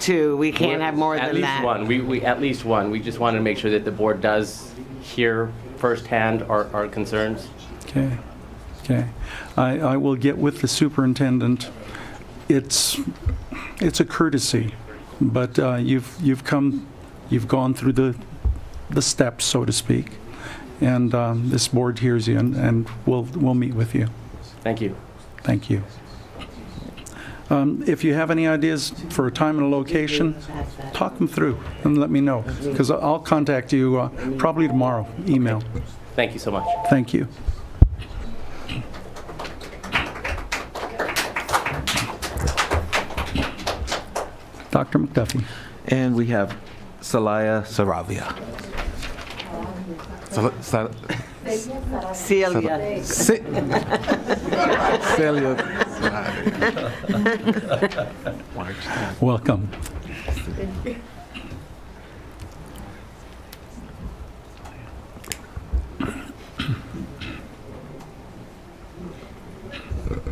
two, we can't have more At than least that. one. We, we at least one. We just wanted to make sure that the board does hear firsthand our, our concerns. Okay, okay. I, I will get with the superintendent. It's, it's a courtesy, but uh, you've, you've come, you've gone through the, the steps, so to speak, and um, this board hears you, and, and we'll, we'll meet with you. Thank you. Thank you. Um, If you have any ideas for a time and a location, talk them through and let me know, because I'll contact you uh, probably tomorrow, email. Thank you so much. Thank you. Dr. McDuffie. And we have Salaya Saravia. Sal- Sal- Celia, Si- Celia. Welcome.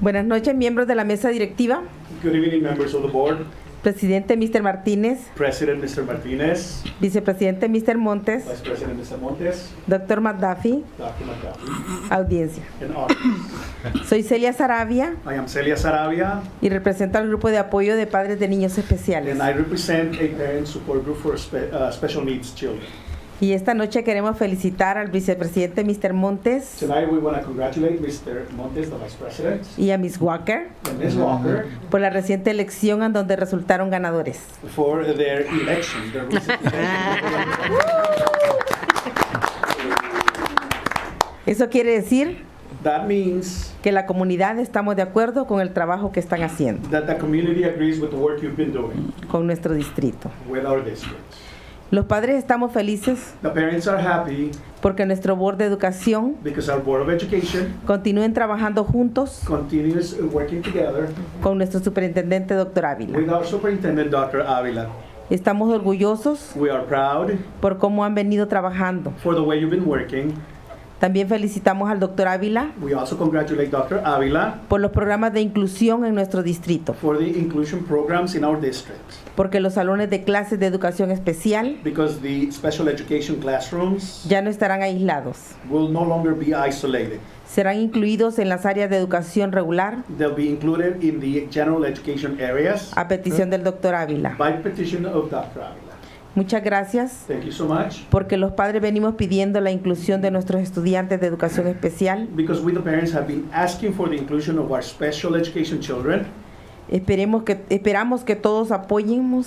Buenas noches, miembros de la mesa directiva. Good evening, members of the board. Presidente Mr. Martínez, President, Mr. Martinez, vicepresidente Mr. Montes, Vice President, Mr. Montes, doctor McDuffie, Dr. McDuffie, audiencia. and audience. Soy Celia Sarabia I am Celia Saravia, y represento al grupo de apoyo de padres de niños especiales. and I represent a parent support group for spe- uh, special needs children. Y esta noche queremos felicitar al vicepresidente Mr. Montes Tonight, we want to congratulate Mr. Montes, the Vice President, y a Miss Walker and Ms. Walker por la reciente elección en donde resultaron ganadores. for their election. their recent election. Eso quiere decir That means que la comunidad estamos de acuerdo con el trabajo que están haciendo that the community agrees with the work you've been doing con nuestro distrito. with our district. Los padres estamos felices The parents are happy porque nuestro board de educación because our Board of Education Continúen trabajando juntos continues working together con nuestro superintendente, doctor Ávila. With our superintendent, Dr. Avila, Estamos orgullosos we are proud por cómo han venido trabajando. for the way you've been working. También felicitamos al doctor Ávila We also congratulate Dr. Avila por los programas de inclusión en nuestro distrito, for the inclusion programs in our district porque los salones de clases de educación especial because the special education classrooms ya no estarán aislados. will no longer be isolated. Serán incluidos en las áreas de educación regular They'll be included in the general education areas a petición del doctor Ávila. by petition of Dr. Avila. Muchas gracias Thank you so much porque los padres venimos pidiendo la inclusión de nuestros estudiantes de educación especial. because we, the parents, have been asking for the inclusion of our special education children. Esperemos que, esperamos que todos apoyemos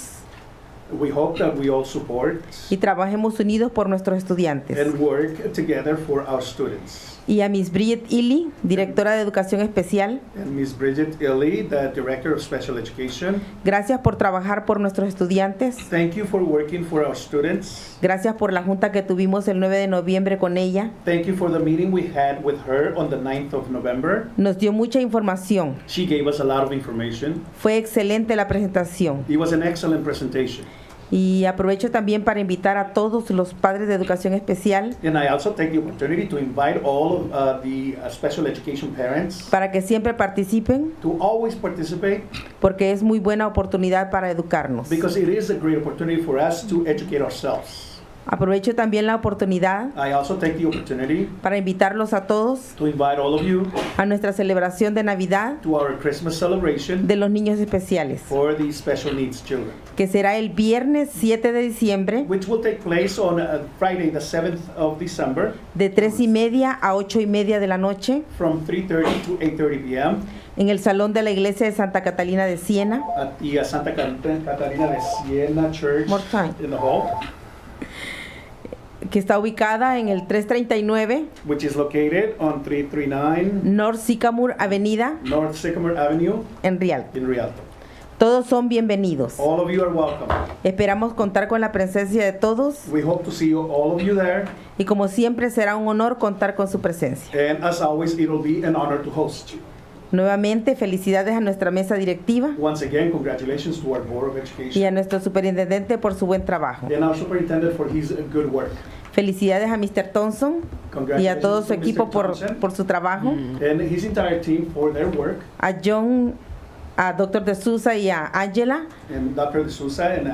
We hope that we all support y trabajemos unidos por nuestros estudiantes. and work together for our students. Y a Miss Bridget Ely, directora de Educación Especial, And Ms. Bridget Illy, the Director of Special Education, gracias por trabajar por nuestros estudiantes. thank you for working for our students. Gracias por la junta que tuvimos el 9 de noviembre con ella. Thank you for the meeting we had with her on the 9th of November. Nos dio mucha información. She gave us a lot of information. Fue excelente la presentación. It was an excellent presentation. Y aprovecho también para invitar a todos los padres de educación especial And I also take the opportunity to invite all of uh, the uh, special education parents para que siempre participen to always participate porque es muy buena oportunidad para educarnos. because it is a great opportunity for us to educate ourselves. Aprovecho también la oportunidad I also take the opportunity para invitarlos a todos to invite all of you a nuestra celebración de Navidad to our Christmas celebration de los niños especiales, for the special needs children. que será el viernes 7 de diciembre which will take place on uh, Friday, the 7th of December, de 3 y media a 8 y media de la noche from 3:30 to 8:30 p.m. en el Salón de la Iglesia de Santa Catalina de Siena. at the uh, Santa Cat- Catarina de Siena Church More time. in the hall, que está ubicada en el 339 which is located on 339 North Sycamore Avenida North Sycamore Avenue en Rialto. in Rialto. Todos son bienvenidos. All of you are welcome. Esperamos contar con la presencia de todos We hope to see you, all of you there, y como siempre será un honor contar con su presencia. and as always, it'll be an honor to host you. Nuevamente, felicidades a nuestra mesa directiva Once again, congratulations to our Board of y a Education nuestro superintendente por su buen trabajo. and our superintendent for his uh, good work. Felicidades a Mr. Thompson y a Congratulations todo su to Mr. equipo por, Thompson por su trabajo. and his entire team for their work. A John a Dr. De Souza y a Angela and Dr. De Souza and